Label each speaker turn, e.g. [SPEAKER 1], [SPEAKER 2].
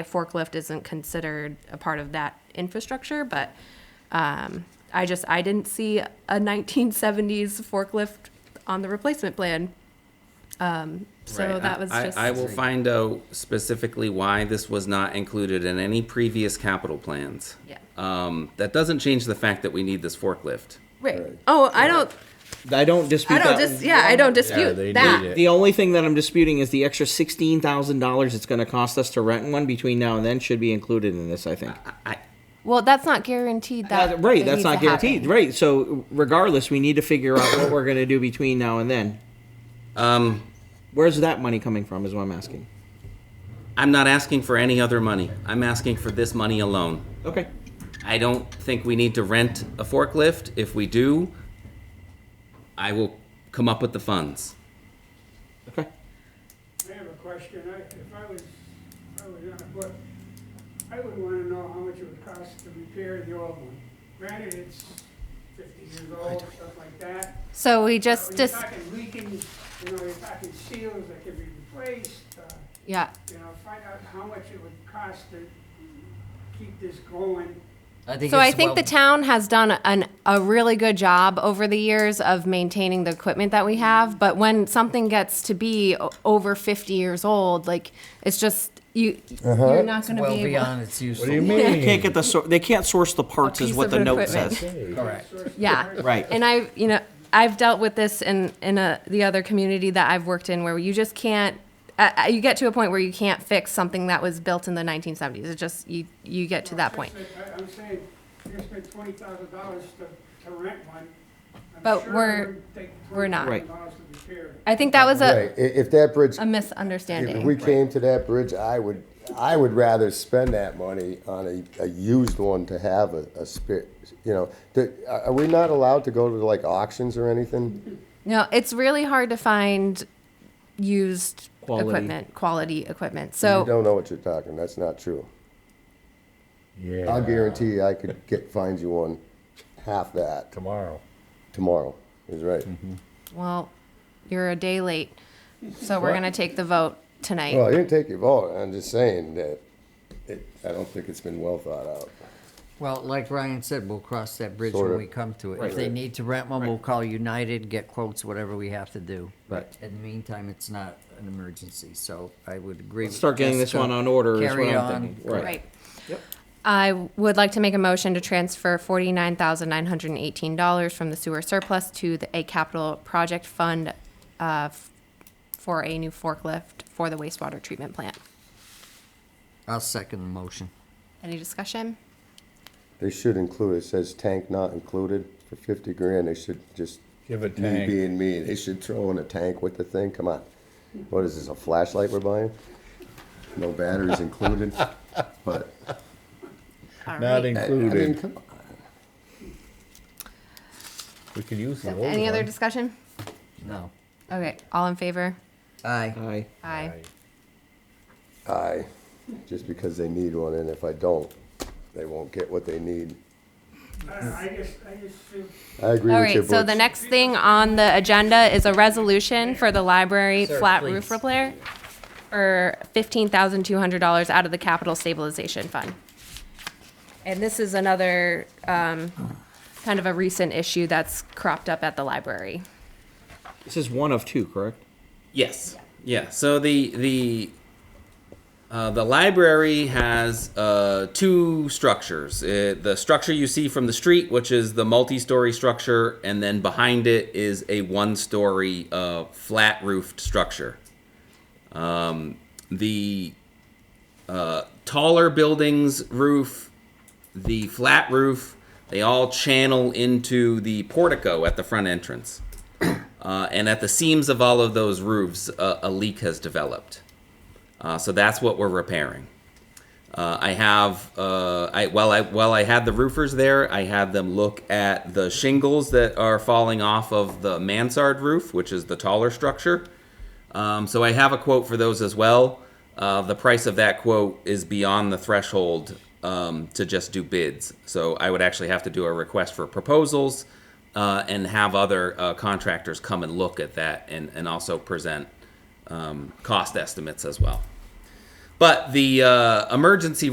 [SPEAKER 1] a forklift isn't considered a part of that infrastructure, but um, I just, I didn't see a 1970s forklift on the replacement plan. Um, So
[SPEAKER 2] Right,
[SPEAKER 1] that
[SPEAKER 2] I-
[SPEAKER 1] was
[SPEAKER 2] I-
[SPEAKER 1] just,
[SPEAKER 2] I will find out specifically why this was not included in any previous capital plans.
[SPEAKER 1] Yeah.
[SPEAKER 2] Um, that doesn't change the fact that we need this forklift.
[SPEAKER 1] right, oh, I don't,
[SPEAKER 3] I don't dispute
[SPEAKER 1] I don't
[SPEAKER 3] that.
[SPEAKER 1] just, yeah, I don't
[SPEAKER 4] they
[SPEAKER 1] dispute that.
[SPEAKER 4] need
[SPEAKER 3] the only thing that I'm disputing is the extra sixteen thousand dollars it's going to cost us to rent one between now and then should be included in this. I think.
[SPEAKER 2] I,
[SPEAKER 1] Well, that's not guaranteed
[SPEAKER 3] Uh, right, that's not guaranteed. Right, so regardless, we need to figure out what we're going to do between now and then.
[SPEAKER 2] um,
[SPEAKER 3] Where's that money coming from? Is what I'm asking.
[SPEAKER 2] I'm not asking for any other money. I'm asking for this money alone.
[SPEAKER 3] Okay.
[SPEAKER 2] I don't think we need to rent a forklift. If we do, I will come up with the funds.
[SPEAKER 3] Okay.
[SPEAKER 5] I have a question. I, if I was, I was on a book, I would wanna know how much it would cost to repair the old one. Granted, it's fifty years old, stuff like that.
[SPEAKER 1] So we
[SPEAKER 5] But
[SPEAKER 1] just,
[SPEAKER 5] You're
[SPEAKER 1] dis-
[SPEAKER 5] talking leaking, you know, you're talking seals that can be replaced, uh,
[SPEAKER 1] yeah,
[SPEAKER 5] you know, find out how much it would cost to keep this going.
[SPEAKER 6] I think
[SPEAKER 1] So I
[SPEAKER 6] it's
[SPEAKER 1] think
[SPEAKER 6] well-
[SPEAKER 1] the town has done an, a really good job over the years of maintaining the equipment that we have. But when something gets to be o- over 50 years old, like it's just you,
[SPEAKER 4] Uh-huh.
[SPEAKER 1] you're not going to
[SPEAKER 6] well
[SPEAKER 1] be able.
[SPEAKER 6] beyond its useful.
[SPEAKER 4] What do you mean?
[SPEAKER 3] Can't get the sor- they can't source the parts
[SPEAKER 1] A
[SPEAKER 3] is
[SPEAKER 1] piece
[SPEAKER 3] what
[SPEAKER 1] of
[SPEAKER 3] the note
[SPEAKER 1] equipment.
[SPEAKER 3] says.
[SPEAKER 6] Correct.
[SPEAKER 1] Yeah.
[SPEAKER 3] Right.
[SPEAKER 1] And I, you know, I've dealt with this in in a, the other community that I've worked in where you just can't. Uh, uh, you get to a point where you can't fix something that was built in the 1970s. It just you you get to that point.
[SPEAKER 5] I, I'm saying, you're gonna spend twenty thousand dollars to, to rent one. I'm
[SPEAKER 1] But
[SPEAKER 5] sure it
[SPEAKER 1] we're-
[SPEAKER 5] wouldn't take
[SPEAKER 1] we're not.
[SPEAKER 3] Right.
[SPEAKER 5] $20,000 to repair it.
[SPEAKER 1] I think that was a,
[SPEAKER 4] Right, i- if that bridge,
[SPEAKER 1] a misunderstanding.
[SPEAKER 4] if we came to that bridge, I would, I would rather spend that money on a, a used one to have a, a spare, you know, the, are are we not allowed to go to like auctions or anything?
[SPEAKER 1] No, it's really hard to find used
[SPEAKER 3] Quality.
[SPEAKER 1] equipment, quality equipment.
[SPEAKER 4] You
[SPEAKER 1] So
[SPEAKER 4] don't know what you're talking, that's not true.
[SPEAKER 7] Yeah.
[SPEAKER 4] I'll guarantee you I could get, find you one half that
[SPEAKER 7] Tomorrow. Mm-hmm.
[SPEAKER 4] tomorrow, is right.
[SPEAKER 1] well, you're a day late. So we're gonna take the vote tonight.
[SPEAKER 4] Well, I didn't take your vote, I'm just saying that it, I don't think it's been well thought out.
[SPEAKER 6] Well, like Ryan said, we'll cross that bridge
[SPEAKER 4] Sort
[SPEAKER 6] when
[SPEAKER 4] of.
[SPEAKER 6] we come to it. If they need to rent one, we'll call United, get quotes, whatever we have to do. But in the meantime, it's not an emergency, so I would agree. with
[SPEAKER 3] Start getting this
[SPEAKER 6] Jessica.
[SPEAKER 3] one on order is
[SPEAKER 6] Carry
[SPEAKER 3] what I'm
[SPEAKER 6] on.
[SPEAKER 3] thinking. Right.
[SPEAKER 1] Right. I would like to make a motion to transfer forty-nine thousand nine hundred and eighteen dollars from the sewer surplus to the, a capital project fund, uh, f- for a new forklift for the wastewater treatment plant.
[SPEAKER 6] I'll second the motion.
[SPEAKER 1] Any discussion?
[SPEAKER 4] They should include, it says tank not included for fifty grand, they should just.
[SPEAKER 7] Give a
[SPEAKER 4] me
[SPEAKER 7] tank.
[SPEAKER 4] Being me, they should throw in a tank with the thing, come on. What is this, a flashlight we're buying? No batteries included, but,
[SPEAKER 1] All
[SPEAKER 7] Not
[SPEAKER 1] right.
[SPEAKER 4] I I mean,
[SPEAKER 7] included.
[SPEAKER 4] come on.
[SPEAKER 7] We could use the old
[SPEAKER 1] Any other
[SPEAKER 7] one.
[SPEAKER 1] discussion?
[SPEAKER 6] No.
[SPEAKER 1] Okay, all in favor?
[SPEAKER 6] Aye.
[SPEAKER 3] Aye.
[SPEAKER 1] Aye.
[SPEAKER 4] I, just because they need one, and if I don't, they won't get what they need.
[SPEAKER 5] I, I just, I just feel
[SPEAKER 4] I agree
[SPEAKER 1] All
[SPEAKER 4] with you,
[SPEAKER 1] right,
[SPEAKER 4] Butch.
[SPEAKER 1] so the next thing on the agenda is a resolution for the library
[SPEAKER 6] Sir,
[SPEAKER 1] flat
[SPEAKER 6] please.
[SPEAKER 1] roof repair for fifteen thousand two hundred dollars out of the capital stabilization fund. And this is another, um, kind of a recent issue that's cropped up at the library.
[SPEAKER 3] This is one of two, correct?
[SPEAKER 2] Yes. Yeah. So the the uh, the library has uh, two structures. It, the structure you see from the street, which is the multi-story structure, and then behind it is a one-story uh, flat-roofed structure. Um, the uh, taller buildings roof, the flat roof, they all channel into the portico at the front entrance. Uh, and at the seams of all of those roofs, uh, a leak has developed. Uh, so that's what we're repairing. Uh, I have, uh, I, while I while I had the roofers there, I had them look at the shingles that are falling off of the mansard roof, which is the taller structure. Um, so I have a quote for those as well. Uh, the price of that quote is beyond the threshold um, to just do bids. So I would actually have to do a request for proposals uh, and have other uh, contractors come and look at that and, and also present um, cost estimates as well. But the uh, emergency